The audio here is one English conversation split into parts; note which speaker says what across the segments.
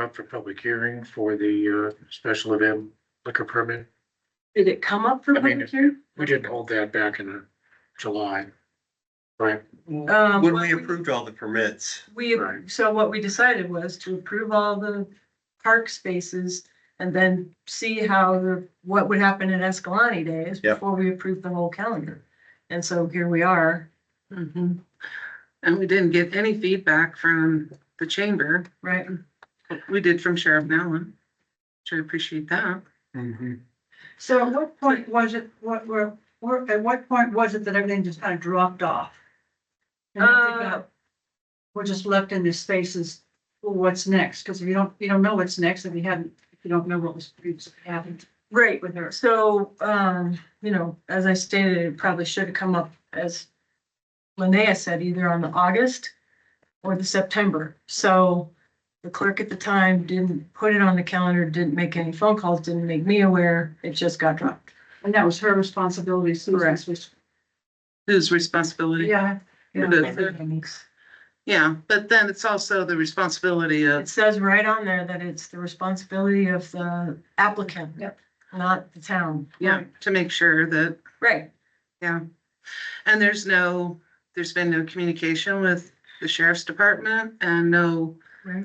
Speaker 1: up for public hearing for the uh, special event liquor permit.
Speaker 2: Did it come up for
Speaker 1: I mean,
Speaker 2: public hearing?
Speaker 1: We didn't hold that back in uh, July. Right,
Speaker 2: Um,
Speaker 3: When
Speaker 2: what
Speaker 3: we approved all the permits,
Speaker 2: We,
Speaker 1: Right.
Speaker 2: so what we decided was to approve all the park spaces and then see how the, what would happen at Escalante Days
Speaker 3: Yep.
Speaker 2: before we approved the whole calendar. And so here we are,
Speaker 4: Mhm. And we didn't get any feedback from the chamber,
Speaker 2: right?
Speaker 4: we did from Sheriff Nellen, which I appreciate that.
Speaker 1: Mm-hmm.
Speaker 5: So at what point was it, what were, were, at what point was it that everything just kind of dropped off? And nothing
Speaker 2: Uh,
Speaker 5: got- We're just left in these spaces, well, what's next? Because if you don't, you don't know what's next, if you haven't, if you don't know what was previously happened
Speaker 2: Right,
Speaker 5: with her.
Speaker 2: so, um, you know, as I stated, it probably should have come up as Linnea said, either on the August or the September. So the clerk at the time didn't put it on the calendar, didn't make any phone calls, didn't make me aware, it just got dropped.
Speaker 5: And that was her responsibility, Susan's, was-
Speaker 4: Whose responsibility?
Speaker 5: yeah.
Speaker 4: It
Speaker 5: yeah.
Speaker 4: is. Yeah, but then it's also the responsibility
Speaker 2: It
Speaker 4: of,
Speaker 2: says right on there that it's the responsibility of the applicant.
Speaker 5: Yep.
Speaker 2: Not the town.
Speaker 4: yeah, to make sure that,
Speaker 2: Right,
Speaker 4: and there's no, there's been no communication with the sheriff's department and no
Speaker 2: right.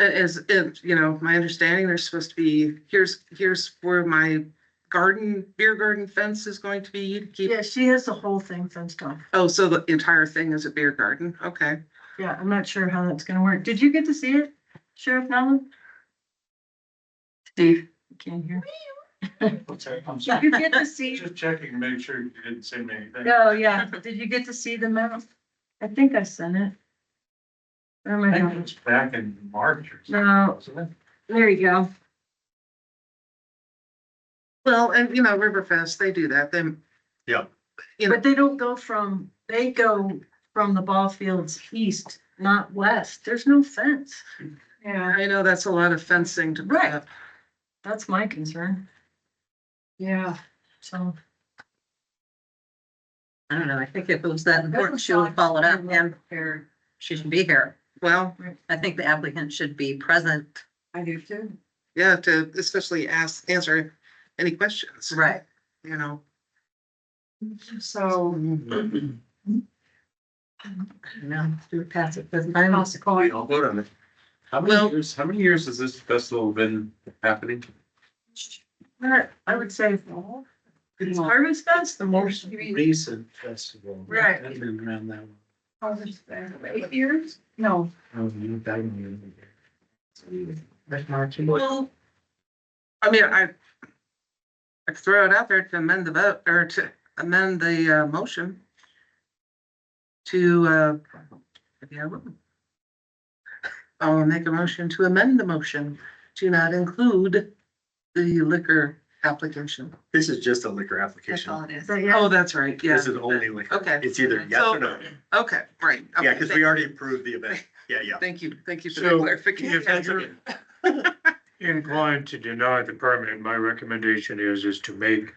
Speaker 4: it is, it, you know, my understanding, there's supposed to be, here's, here's where my garden, beer garden fence is going to be to keep.
Speaker 2: Yeah, she has the whole thing fenced off.
Speaker 4: Oh, so the entire thing is a beer garden, okay.
Speaker 2: Yeah, I'm not sure how that's gonna work. Did you get to see it, Sheriff Nolan? Steve, I can't hear.
Speaker 1: I'm
Speaker 2: Did you get to see?
Speaker 1: checking, make sure you didn't send me anything.
Speaker 2: No, yeah, did you get to see the map? I think I sent it. Where am I going?
Speaker 1: back in March or
Speaker 2: No, there you go.
Speaker 4: Well, and you know, Riverfest, they do that, then,
Speaker 2: But they don't go from, they go from the ball fields east, not west. There's no fence.
Speaker 5: Yeah,
Speaker 4: I know that's a lot of fencing to put
Speaker 2: Right.
Speaker 4: up.
Speaker 2: That's my concern,
Speaker 5: yeah.
Speaker 2: so.
Speaker 6: I don't know, I think if it was that
Speaker 5: Doesn't
Speaker 6: important, she would
Speaker 5: sound
Speaker 6: follow it up
Speaker 5: very well
Speaker 6: and she should be here.
Speaker 4: Well,
Speaker 6: I think the applicant should be present.
Speaker 5: I do too.
Speaker 4: yeah, to especially ask, answer any questions.
Speaker 6: Right.
Speaker 4: You know,
Speaker 5: So,
Speaker 4: Mm-hmm.
Speaker 6: No, do pass it, because I'm,
Speaker 5: consequently,
Speaker 3: I'll vote on it.
Speaker 7: How
Speaker 4: Well-
Speaker 7: many years, how many years has this festival been happening?
Speaker 2: But I would say it's harvest fest, the most.
Speaker 1: Recent festival.
Speaker 2: Right.
Speaker 1: I've been around that one.
Speaker 5: eight years? No,
Speaker 1: Oh, you died in the-
Speaker 4: well, I mean, I I throw it out there to amend the vote, or to amend the, uh, motion to, uh, maybe I will. I'll make a motion to amend the motion to not include the liquor application.
Speaker 3: This is just a liquor
Speaker 6: that's all
Speaker 3: application.
Speaker 6: it is.
Speaker 2: So, yeah,
Speaker 4: Oh, that's right, yeah.
Speaker 3: This is only liquor.
Speaker 4: Okay.
Speaker 3: It's either yes or no.
Speaker 4: Okay, right.
Speaker 3: Yeah,
Speaker 4: okay,
Speaker 3: because
Speaker 4: thank-
Speaker 3: we already approved the event. Yeah, yeah.
Speaker 4: Thank you, thank you for the
Speaker 1: So,
Speaker 4: clarification.
Speaker 1: If you're inclined to deny the permit, my recommendation is, is to make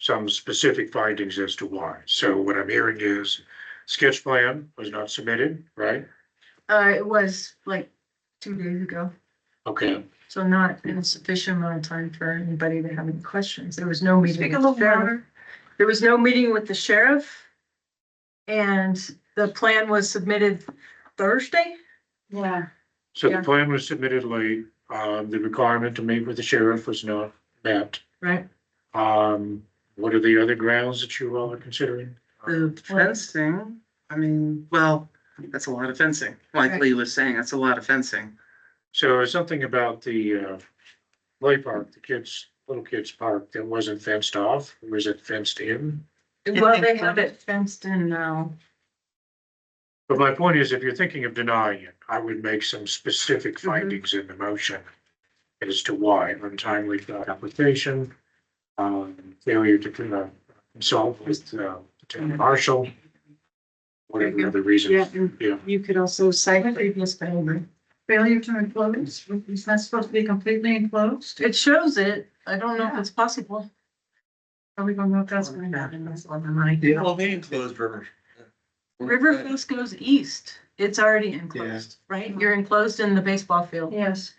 Speaker 1: some specific findings as to why. So what I'm hearing is sketch plan was not submitted, right?
Speaker 2: uh, it was like two days ago,
Speaker 1: Okay,
Speaker 2: so not in a sufficient amount of time for anybody to have any questions. There was no meeting.
Speaker 5: Speak a
Speaker 2: with
Speaker 5: little
Speaker 2: the sheriff.
Speaker 5: louder.
Speaker 2: There was no meeting with the sheriff. And the plan was submitted Thursday?
Speaker 5: yeah.
Speaker 1: so the
Speaker 2: Yeah.
Speaker 1: plan was submitted late, um, the requirement to meet with the sheriff was not met.
Speaker 2: Right.
Speaker 1: Um, what are the other grounds that you all are considering?
Speaker 4: The fencing, I mean, well, that's a lot of fencing, like
Speaker 2: Right.
Speaker 4: Lee was saying, that's a lot of fencing.
Speaker 1: So it's something about the, uh, play park, the kids, little kids park that wasn't fenced off, was it fenced in?
Speaker 2: Well, they have it fenced in now.
Speaker 1: But my point is, if you're thinking of denying it, I would make some specific findings in the motion as to why untimely application, um, failure to con- uh, consult with, uh, the town marshal, whatever the other reasons. Yeah.
Speaker 2: You could also cite previous behavior.
Speaker 5: Failure to enclose, it's not supposed to be completely enclosed?
Speaker 2: It shows it. I don't know if it's possible.
Speaker 5: Are we gonna know if that's gonna happen? Yeah.
Speaker 3: Well, they enclosed river.
Speaker 2: River Fest goes east. It's already enclosed, right? You're enclosed in the baseball field.
Speaker 5: Yes,